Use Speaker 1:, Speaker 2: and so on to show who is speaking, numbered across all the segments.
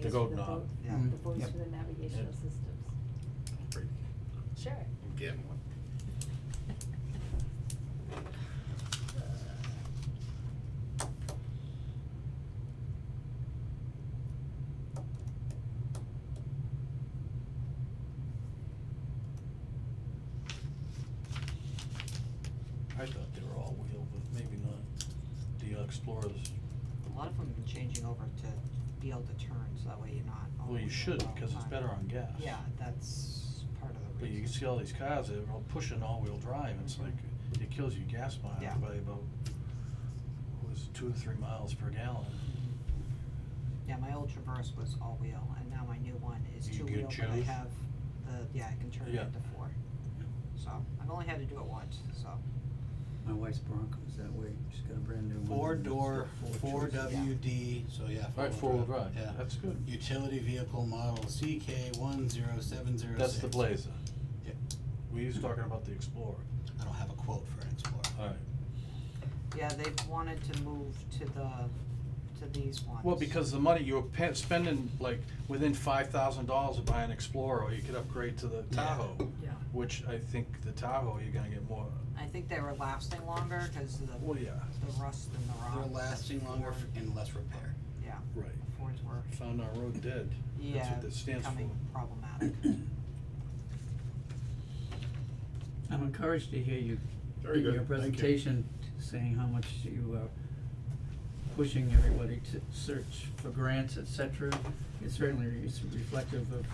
Speaker 1: The
Speaker 2: Use
Speaker 1: goat
Speaker 2: for
Speaker 1: knob.
Speaker 2: boat-
Speaker 3: Yeah.
Speaker 2: The voice
Speaker 3: Yep.
Speaker 2: for the navigational
Speaker 1: Yep.
Speaker 2: systems. Sure.
Speaker 4: I'm getting one.
Speaker 1: I thought they were all wheel, but maybe not. The uh, Explorers,
Speaker 3: A lot of them have been changing over to be able to turn, so that way you're not all
Speaker 1: well, you
Speaker 3: over
Speaker 1: should,
Speaker 3: all the
Speaker 1: because it's
Speaker 3: time.
Speaker 1: better on gas.
Speaker 3: Yeah, that's part of the
Speaker 1: But you can
Speaker 3: reason.
Speaker 1: see all these cars, they're all pushing all-wheel drive, it's
Speaker 3: Mhm.
Speaker 1: like, it kills you gas mileage
Speaker 3: Yeah.
Speaker 1: by about, what was it, two or three miles per gallon.
Speaker 3: Mm-hmm. Yeah, my old Traverse was all-wheel, and now my new one is
Speaker 1: You can
Speaker 3: two-wheel, but I
Speaker 1: choose?
Speaker 3: have the, yeah, I can turn it
Speaker 1: Yeah.
Speaker 3: into four. So, I've only had to do it once, so,
Speaker 5: My wife's Bronco's that way, she's got a brand new one.
Speaker 4: Four
Speaker 5: and it's
Speaker 4: door,
Speaker 5: got
Speaker 4: four
Speaker 5: choices.
Speaker 4: W D, so yeah, four
Speaker 1: Right, four-wheel drive, that's good.
Speaker 4: Yeah, utility vehicle model CK one zero seven zero six.
Speaker 1: That's the Blazer.
Speaker 4: Yeah.
Speaker 1: We was talking about the Explorer.
Speaker 4: I don't have a quote for an Explorer.
Speaker 1: Alright.
Speaker 3: yeah, they've wanted to move to the, to these ones.
Speaker 1: Well, because the money, you were pa- spending like within five thousand dollars to buy an Explorer, or you could upgrade to the
Speaker 4: Yeah.
Speaker 1: Tahoe.
Speaker 3: Yeah.
Speaker 1: Which I think the Tahoe, you're gonna get more,
Speaker 3: I think they were lasting longer, cause of the,
Speaker 1: well, yeah,
Speaker 3: the rust and the rock.
Speaker 4: They're
Speaker 3: that
Speaker 4: lasting longer
Speaker 3: Ford-
Speaker 4: f- and less repair.
Speaker 3: Yeah,
Speaker 1: right.
Speaker 3: the Fords were
Speaker 1: Found our road dead. That's
Speaker 3: Yeah,
Speaker 1: what that stands for.
Speaker 3: becoming problematic.
Speaker 5: I'm encouraged to hear you,
Speaker 6: Very
Speaker 5: in
Speaker 6: good,
Speaker 5: your
Speaker 6: thank you.
Speaker 5: presentation, saying how much you are pushing everybody to search for grants, et cetera. It certainly is reflective of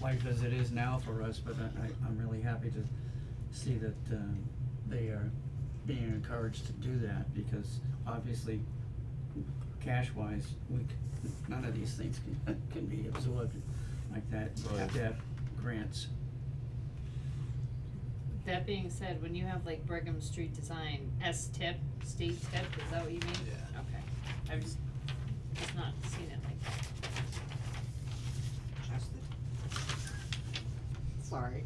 Speaker 5: life as it is now for us, but I, I, I'm really happy to see that, um, they are being encouraged to do that, because obviously, cash-wise, we, c- none of these things can, can be absorbed like that. We
Speaker 1: Right.
Speaker 5: have to have grants.
Speaker 7: That being said, when you have like Brigham Street Design, S tip, state tip, is that what you mean?
Speaker 4: Yeah.
Speaker 7: Okay, I've just, just not seen it like that.
Speaker 3: Just the- Sorry.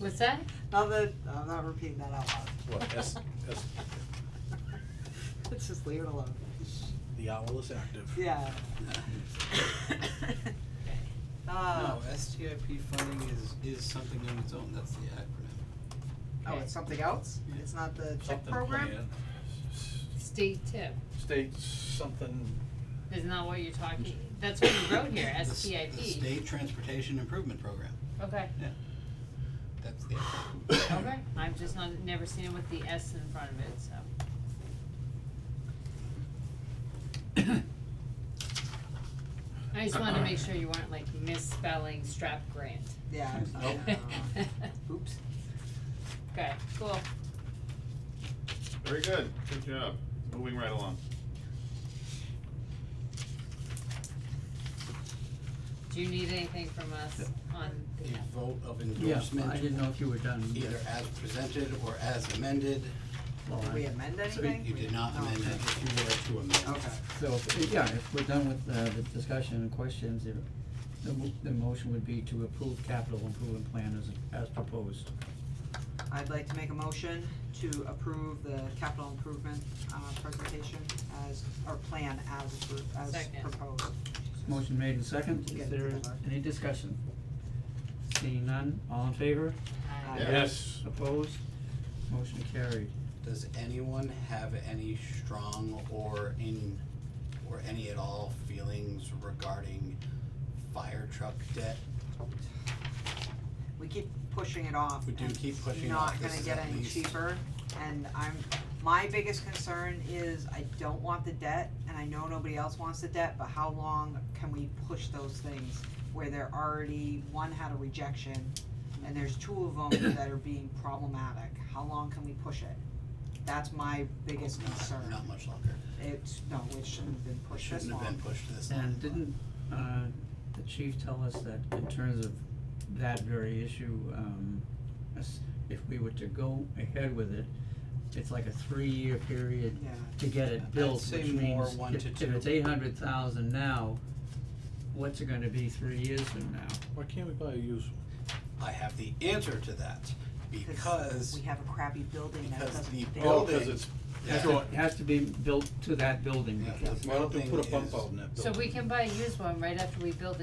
Speaker 7: What's that?
Speaker 3: Now that, I'm not repeating that out loud.
Speaker 1: What, S, S,
Speaker 3: Let's just leave it alone.
Speaker 1: the owl is active.
Speaker 3: Yeah.
Speaker 7: Okay.
Speaker 3: Uh,
Speaker 4: No, STIP funding is, is something on its own, that's the acronym.
Speaker 3: oh, it's something else? It's not the tip
Speaker 1: Something
Speaker 3: program?
Speaker 1: planned. S-
Speaker 7: State tip,
Speaker 1: State something,
Speaker 7: is not what you're talking, that's what you wrote here,
Speaker 4: The s-
Speaker 7: STIP.
Speaker 4: The State Transportation Improvement Program,
Speaker 7: Okay,
Speaker 4: that's the acronym.
Speaker 7: okay, I've just not, never seen it with the S in front of it, so. I just wanted to make sure you weren't like misspelling strap grant.
Speaker 3: Yeah, it's not, uh, oops.
Speaker 7: Okay, cool.
Speaker 6: Very good, good job, moving right along.
Speaker 7: Do you need anything from us on the,
Speaker 4: A vote of
Speaker 5: Yeah, I
Speaker 4: endorsement,
Speaker 5: didn't know if you were done.
Speaker 4: either as presented or as amended,
Speaker 5: Well,
Speaker 3: Did
Speaker 5: I-
Speaker 3: we amend
Speaker 5: so we-
Speaker 3: anything?
Speaker 4: you did not
Speaker 3: No.
Speaker 4: amend it, if you were to amend.
Speaker 3: Okay,
Speaker 5: So, if- yeah, if we're done with uh, the discussion and questions, the, the mo- the motion would be to approve capital improvement plan as, as proposed.
Speaker 3: I'd like to make a motion to approve the capital improvement, uh, presentation as, or plan as, appro- as
Speaker 7: Second.
Speaker 3: proposed.
Speaker 5: Motion made and second,
Speaker 3: Get
Speaker 5: is
Speaker 3: it
Speaker 5: there
Speaker 3: together.
Speaker 5: any discussion? Seeing none, all in favor,
Speaker 7: uh,
Speaker 3: Yeah.
Speaker 1: yes,
Speaker 5: opposed, motion carried.
Speaker 4: Does anyone have any strong or in, or any at all feelings regarding fire truck debt?
Speaker 3: we keep pushing it off.
Speaker 4: We do
Speaker 3: and
Speaker 4: keep pushing it off.
Speaker 3: Not
Speaker 4: This
Speaker 3: gonna
Speaker 4: is
Speaker 3: get
Speaker 4: at
Speaker 3: any
Speaker 4: least-
Speaker 3: cheaper, and I'm, my biggest concern is I don't want the debt, and I know nobody else wants the debt, but how long can we push those things? Where they're already, one had a rejection, and there's two of them that are being problematic, how long can we push it? That's my biggest
Speaker 4: Not,
Speaker 3: concern,
Speaker 4: not much longer.
Speaker 3: it's, no, it shouldn't have been pushed this
Speaker 4: Shouldn't have
Speaker 3: long.
Speaker 4: been pushed to this long.
Speaker 5: And didn't, uh, the chief tell us that in terms of that very issue, um, as- if we were to go ahead with it, it's like a three-year period
Speaker 3: Yeah,
Speaker 5: to get it
Speaker 4: I'd
Speaker 5: built,
Speaker 4: say
Speaker 5: which
Speaker 4: more
Speaker 5: means
Speaker 4: one
Speaker 5: if,
Speaker 4: to
Speaker 5: if
Speaker 4: two.
Speaker 5: it's eight hundred thousand now, what's it gonna be three years from now?
Speaker 1: why can't we buy a used one?
Speaker 4: I have the answer to that. because,
Speaker 3: we have a crappy building that
Speaker 4: because
Speaker 3: doesn't
Speaker 4: the
Speaker 3: fit.
Speaker 1: Oh, cause
Speaker 4: Building.
Speaker 1: it's,
Speaker 5: Has to, has to be built to that building.
Speaker 4: yeah,
Speaker 5: because-
Speaker 4: this
Speaker 1: why don't they
Speaker 4: building
Speaker 1: put a bump
Speaker 4: is-
Speaker 1: out in that building?
Speaker 7: So we can buy a used one right after we build it.